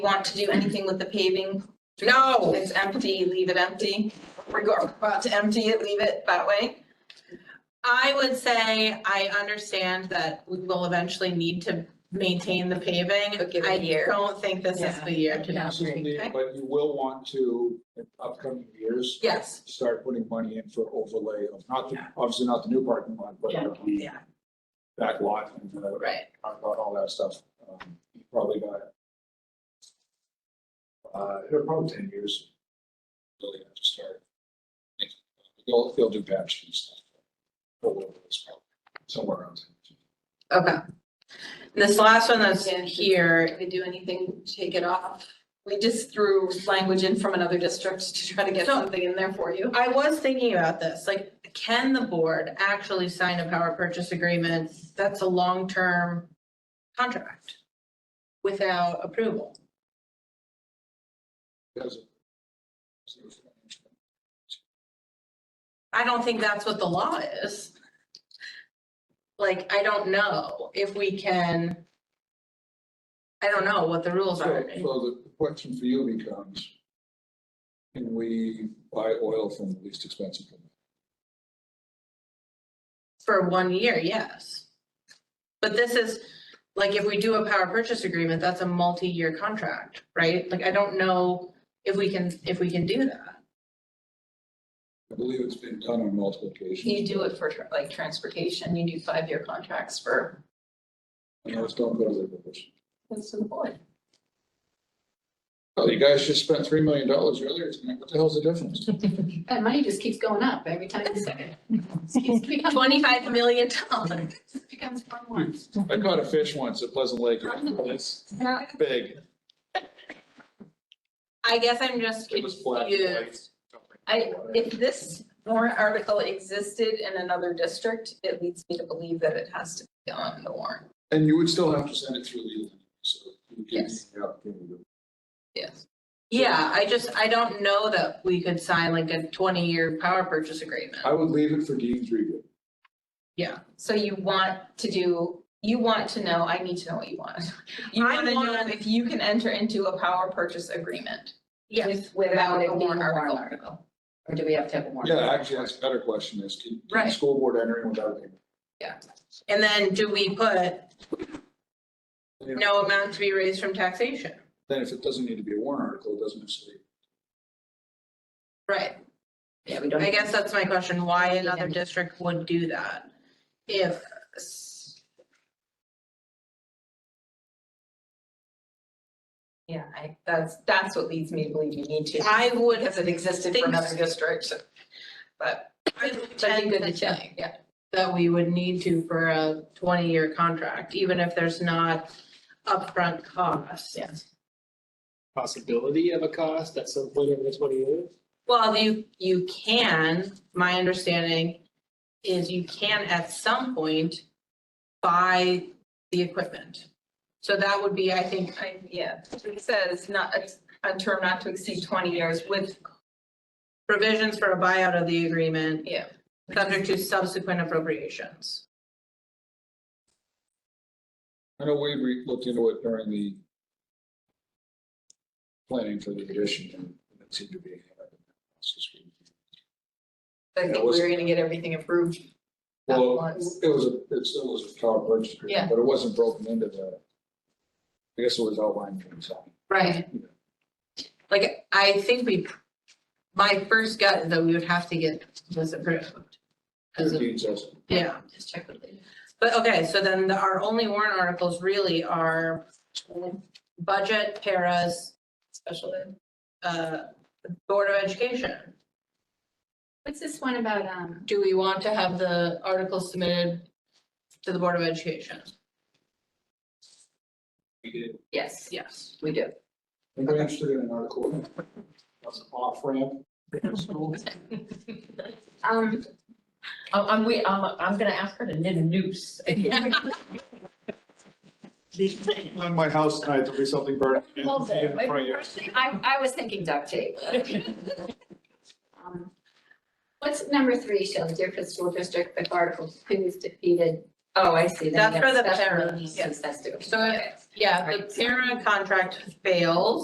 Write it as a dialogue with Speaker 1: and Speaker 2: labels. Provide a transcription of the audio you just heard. Speaker 1: want to do anything with the paving.
Speaker 2: No.
Speaker 1: It's empty, leave it empty. We're go- about to empty it, leave it that way.
Speaker 2: I would say I understand that we will eventually need to maintain the paving.
Speaker 3: But give it a year.
Speaker 2: I don't think this is
Speaker 3: Yeah.
Speaker 2: the year to
Speaker 3: Yeah.
Speaker 2: do.
Speaker 1: Okay.
Speaker 4: But you will want to, in upcoming years.
Speaker 2: Yes,
Speaker 4: Start putting money in for overlay of not, the obviously not the new parking lot, but the
Speaker 2: Yeah.
Speaker 4: back lot and the,
Speaker 2: right.
Speaker 4: park lot, all that stuff. Um, you Probably got. Uh, it'll probably ten years. Really have to start. They'll, they'll do batch and stuff. But we'll- it's probably Somewhere around.
Speaker 2: Okay. This last one that's
Speaker 1: Yeah.
Speaker 2: here,
Speaker 1: If we do anything, take it off. We just threw language in from another district to try to get
Speaker 2: So-
Speaker 1: something in there for you.
Speaker 2: I was thinking about this, like, can the board actually sign a power purchase agreement that's a long-term contract without approval?
Speaker 4: Because of-
Speaker 2: I don't think that's what the law is. Like, I don't know if we can. I don't know what the rules
Speaker 4: So
Speaker 2: are.
Speaker 4: so the question for you becomes, can we buy oil from the least expensive? company?
Speaker 2: For one year, yes. But this is, like, if we do a power purchase agreement, that's a multi-year contract, right? Like, I don't know if we can, if we can do that.
Speaker 4: I believe it's been done on multiple occasions.
Speaker 1: You do it for tra- like transportation, you do five-year contracts for,
Speaker 4: And those don't go to the village.
Speaker 1: that's the point.
Speaker 4: Oh, you guys just spent three million dollars earlier tonight. What the hell's the difference?
Speaker 5: That money just keeps going up every time you say it. It becomes-
Speaker 2: Twenty-five million dollars.
Speaker 5: it becomes one once.
Speaker 4: I caught a fish once at Pleasant Lake. It's big.
Speaker 2: I guess I'm just
Speaker 4: It was black and
Speaker 2: confused.
Speaker 4: white.
Speaker 1: I, if this warrant article existed in another district, it leads me to believe that it has to be on the warrant.
Speaker 4: And you would still have to send it through legal. so you can-
Speaker 1: Yes.
Speaker 4: Yeah, you
Speaker 1: Yes.
Speaker 2: Yeah, I just, I don't know that we could sign like a twenty-year power purchase agreement.
Speaker 4: can. I would leave it for Dean's review.
Speaker 1: So you want to do, you want to know, I need to know what you want. You
Speaker 2: I
Speaker 1: want to know
Speaker 2: want-
Speaker 1: if you can enter into a power purchase agreement
Speaker 2: Yes,
Speaker 1: with- without
Speaker 5: Without
Speaker 1: a
Speaker 5: it being
Speaker 1: warrant
Speaker 5: a warrant
Speaker 1: article.
Speaker 5: article. Or do we have to have a warrant?
Speaker 4: Yeah, actually, that's a better question is, can, can the
Speaker 2: Right.
Speaker 4: school board enter in without a?
Speaker 2: and then do we put
Speaker 4: you
Speaker 2: no
Speaker 4: know,
Speaker 2: amount to be raised from taxation?
Speaker 4: Then if it doesn't need to be a warrant article, it doesn't necessarily.
Speaker 2: Right,
Speaker 5: Yeah, we don't.
Speaker 2: I guess that's my question, why
Speaker 5: Yeah.
Speaker 2: another district would do that? If, s-
Speaker 1: Yeah, I, that's, that's what leads me to believe you need to.
Speaker 2: I would
Speaker 1: Because it existed
Speaker 2: think-
Speaker 1: for another district, but, but you
Speaker 2: tend
Speaker 1: good to
Speaker 2: to think
Speaker 1: check, yeah.
Speaker 2: that we would need to for a twenty-year contract, even if there's not upfront costs. Yes.
Speaker 6: possibility of a cost at some point over the twenty years?
Speaker 2: Well, you, you can, my understanding is you can at some point buy the equipment. So that would be, I think,
Speaker 1: I, yeah, it says not, it's a term not to exceed twenty years with,
Speaker 2: provisions for a buyout of the agreement.
Speaker 1: Yeah.
Speaker 2: Subject to subsequent appropriations.
Speaker 4: I know we re- looked into it during the planning for the addition and it seemed to be.
Speaker 1: I think
Speaker 4: That was-
Speaker 1: we're gonna get everything approved at
Speaker 4: Well,
Speaker 1: once.
Speaker 4: it was, a it still was a power purchase
Speaker 1: Yeah.
Speaker 4: agreement, but it wasn't broken into the, I guess it was outlined from the side.
Speaker 2: Right. Like, I think we, my first gut is that we would have to get this approved. As a-
Speaker 4: Dean says,
Speaker 2: Yeah,
Speaker 1: Just check with Lee.
Speaker 2: but okay, so then the- our only warrant articles really are budget, paras,
Speaker 1: Special ed.
Speaker 2: uh, Board of Education.
Speaker 5: What's this one about, um,
Speaker 2: Do we want to have the articles submitted to the Board of Education?
Speaker 4: we did.
Speaker 5: yes,
Speaker 2: Yes.
Speaker 5: we do.
Speaker 4: Anybody interested in an article? That's an off ramp.
Speaker 5: Um,
Speaker 3: I'm, I'm, we- I'm, I'm gonna ask her to knit a noose.
Speaker 4: On my house tonight, there'll be something burning in
Speaker 3: Hold it.
Speaker 4: in front of you.
Speaker 5: I, I was thinking duct tape. Um, What's number three, shall the Deerfield School District, if Article Two is defeated, Oh, I see.
Speaker 2: That's for the parents,
Speaker 5: Yes, that's different.
Speaker 2: So, yeah, the para contract fails.